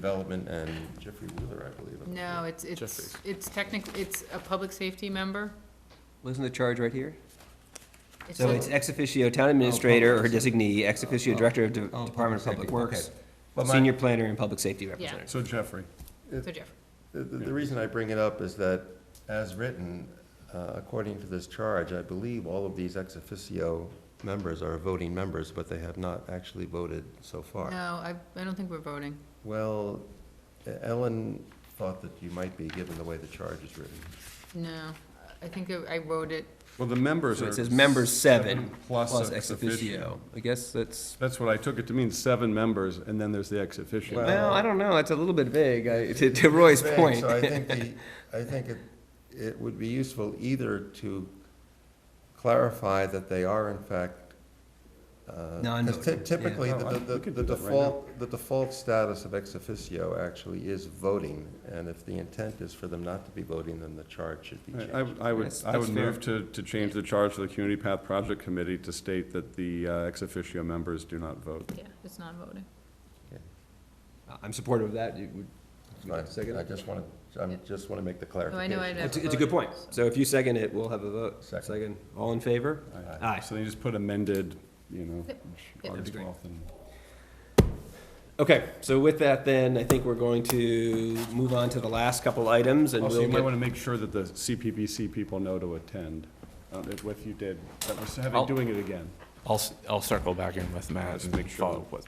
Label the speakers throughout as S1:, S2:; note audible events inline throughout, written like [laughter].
S1: Development and Jeffrey Wheeler, I believe.
S2: No, it's, it's,
S1: Jeffrey.
S2: it's technically, it's a public safety member.
S3: Wasn't the charge right here?
S2: It's
S3: So
S2: a-
S3: it's ex officio town administrator or designee, ex officio
S4: Oh,
S3: director of De-
S4: oh,
S3: Department of
S4: public
S3: Public
S4: safety,
S3: Works,
S4: okay. But my-
S3: senior planner and public safety representative.
S5: So Jeffrey,
S2: So Jeff,
S1: The, the the reason I bring it up is that, as written, uh, according to this charge, I believe all of these ex officio members are voting members, but they have not actually voted so
S2: no,
S1: far.
S2: I, I don't think we're voting.
S1: Well, Ellen thought that you might be, given the way the charge is written.
S2: No, I think I wrote it,
S5: well, the members
S3: So
S5: are.
S3: it says members seven
S5: Plus
S3: plus
S5: ex
S3: officio.
S5: officio.
S3: I guess that's,
S5: That's what I took it to mean, seven members, and then there's the ex officio.
S1: Well-
S3: well, I don't know, it's a little bit vague, I- to to Roy's
S1: Right,
S3: point.
S1: So
S3: [laughs]
S1: I think the, I think it, it would be useful either to clarify that they are in fact. uh, 'cause ty-
S3: Non-voting,
S1: Typically,
S5: yeah.
S1: the,
S5: Oh, I-
S1: the-
S5: we
S1: the
S5: could
S1: the
S5: do that right
S1: default, the default status of ex officio actually is voting. And if the intent is for them not to be voting, then the charge should be
S5: I- I
S1: changed.
S5: would- I would,
S3: That's-
S5: I would
S3: that's fair.
S5: move to, to change the charge of the Community Path Project Committee to state that the uh, ex officio members do not vote.
S2: yeah, it's not voting.
S3: I'm supportive of that, You would-
S1: Fine. I just want to, I just want to make the
S2: No, Oh, I
S1: clarification.
S2: know I
S3: It's it's a good point, so if you second it, we'll have a vote.
S1: Second.
S3: Second, all in favor? Aye.
S5: So then you just put amended, you know,
S2: Yep. Yep.
S5: August
S3: That'd be great.
S5: 12th. and-
S3: Okay, so with that then, I think we're going to move on to the last couple items and we'll.
S5: Also, Oh, you might
S3: get-
S5: want to make sure that the CPBC people know to attend, uh, if if you did, that we're having,
S6: I'll-
S5: doing it again.
S6: I'll, s- I'll circle back in with Matt
S5: Just
S6: and
S5: make sure
S6: follow up with.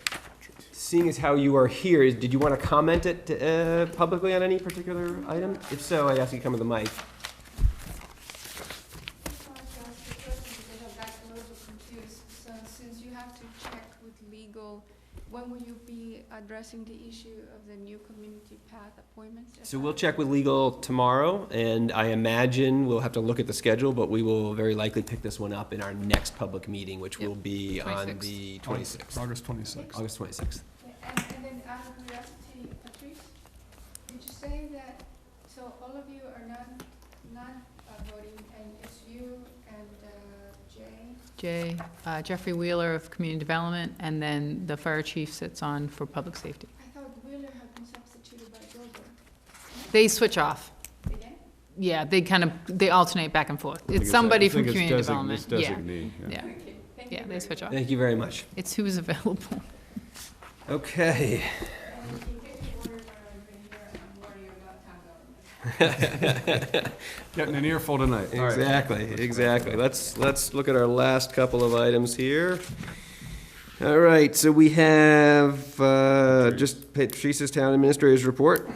S3: Seeing as how you are here, is- did you want to comment it uh, publicly on any particular item? If so, I'd ask you to come to the mic.
S7: just wanted to ask a question because I got a little confused. So since you have to check with legal, when will you be addressing the issue of the new community path appointments?
S3: So we'll check with legal tomorrow, and I imagine we'll have to look at the schedule, but we will very likely pick this one up in our next public meeting, which
S2: Yep,
S3: will be on
S2: 26th.
S3: the 26th,
S5: August 26th.
S3: August 26th.
S7: And, and then out of curiosity, Patrice, did you say that, so all of you are not, not uh, voting and it's you and uh, Jay?
S2: Jay, uh, Jeffrey Wheeler of Community Development, and then the fire chief sits on for public safety.
S7: I thought Wheeler had been substituted by Goldberg.
S2: They switch off.
S7: Again?
S2: Yeah, they kind of, they alternate back and forth.
S5: I think
S2: It's
S5: a-
S2: somebody
S5: I
S2: from
S5: think it's
S2: community
S5: design-
S2: development.
S5: it's
S2: Yeah,
S5: designee,
S2: yeah,
S7: Okay, thank
S2: yeah,
S7: you very
S2: they switch
S7: much.
S2: off.
S3: Thank you very much.
S2: It's who's [laughs] available.
S3: Okay.
S7: And you can get your word when I've been here, I'm worried about town government.
S5: Getting an earful tonight.
S3: Exactly, exactly. Let's, let's look at our last couple of items here. All right, so we have, uh, just Patrice's Town Administrator's Report.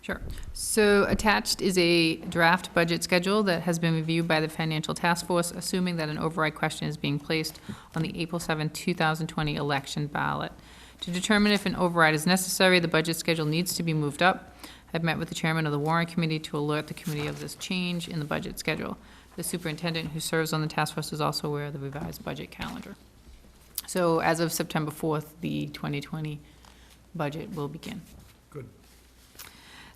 S2: Sure. So attached is a draft budget schedule that has been reviewed by the Financial Task Force, assuming that an override question is being placed on the April 7, 2020 election ballot. To determine if an override is necessary, the budget schedule needs to be moved up. I've met with the chairman of the warrant committee to alert the committee of this change in the budget schedule. The superintendent who serves on the task force is also aware of the revised budget calendar. So as of September 4th, the 2020 budget will begin.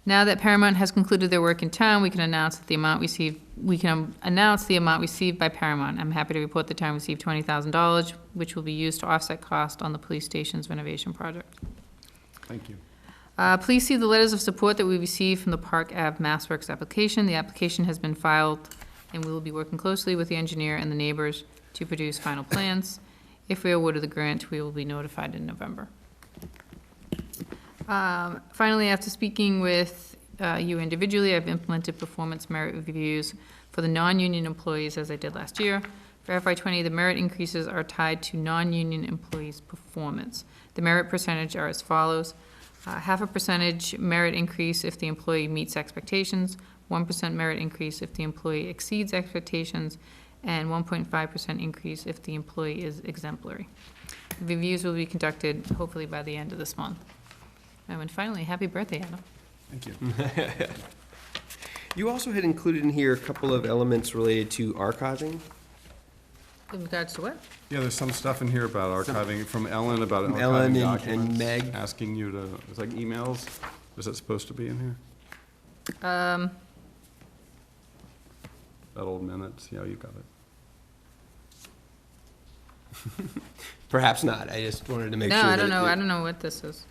S2: Now that Paramount has concluded their work in town, we can announce that the amount received, we can um, announce the amount received by Paramount. I'm happy to report the town received twenty thousand dollars, which will be used to offset cost on the police station's renovation project.
S5: Thank you.
S2: Uh, please see the letters of support that we received from the Park Ave MassWorks application. The application has been filed, and we will be working closely with the engineer and the neighbors to produce final plans. If we are awarded the grant, we will be notified in November. Um, finally, after speaking with, uh, you individually, I've implemented performance merit reviews for the non-union employees as I did last year. For FY twenty, the merit increases are tied to non-union employees' performance. The merit percentage are as follows. Uh, half a percentage merit increase if the employee meets expectations, one percent merit increase if the employee exceeds expectations, and one point five percent increase if the employee is exemplary. The Reviews will be conducted hopefully by the end of this month. Um, And finally, happy birthday, Adam.
S5: Thank you.
S3: You also had included in here a couple of elements related to archiving.
S2: In regards to what?
S5: Yeah, there's some stuff in here about archiving, from Ellen about
S3: From Ellen
S5: archiving
S3: and-
S5: documents.
S3: and Meg.
S5: Asking you to, it's like emails, is that supposed to be in here?
S2: Um,
S5: That old minutes, yeah, you got it.
S3: Perhaps not, I just wanted to make
S2: no,
S3: sure.
S2: I
S3: that
S2: don't
S3: it-
S2: know, I don't know what this is.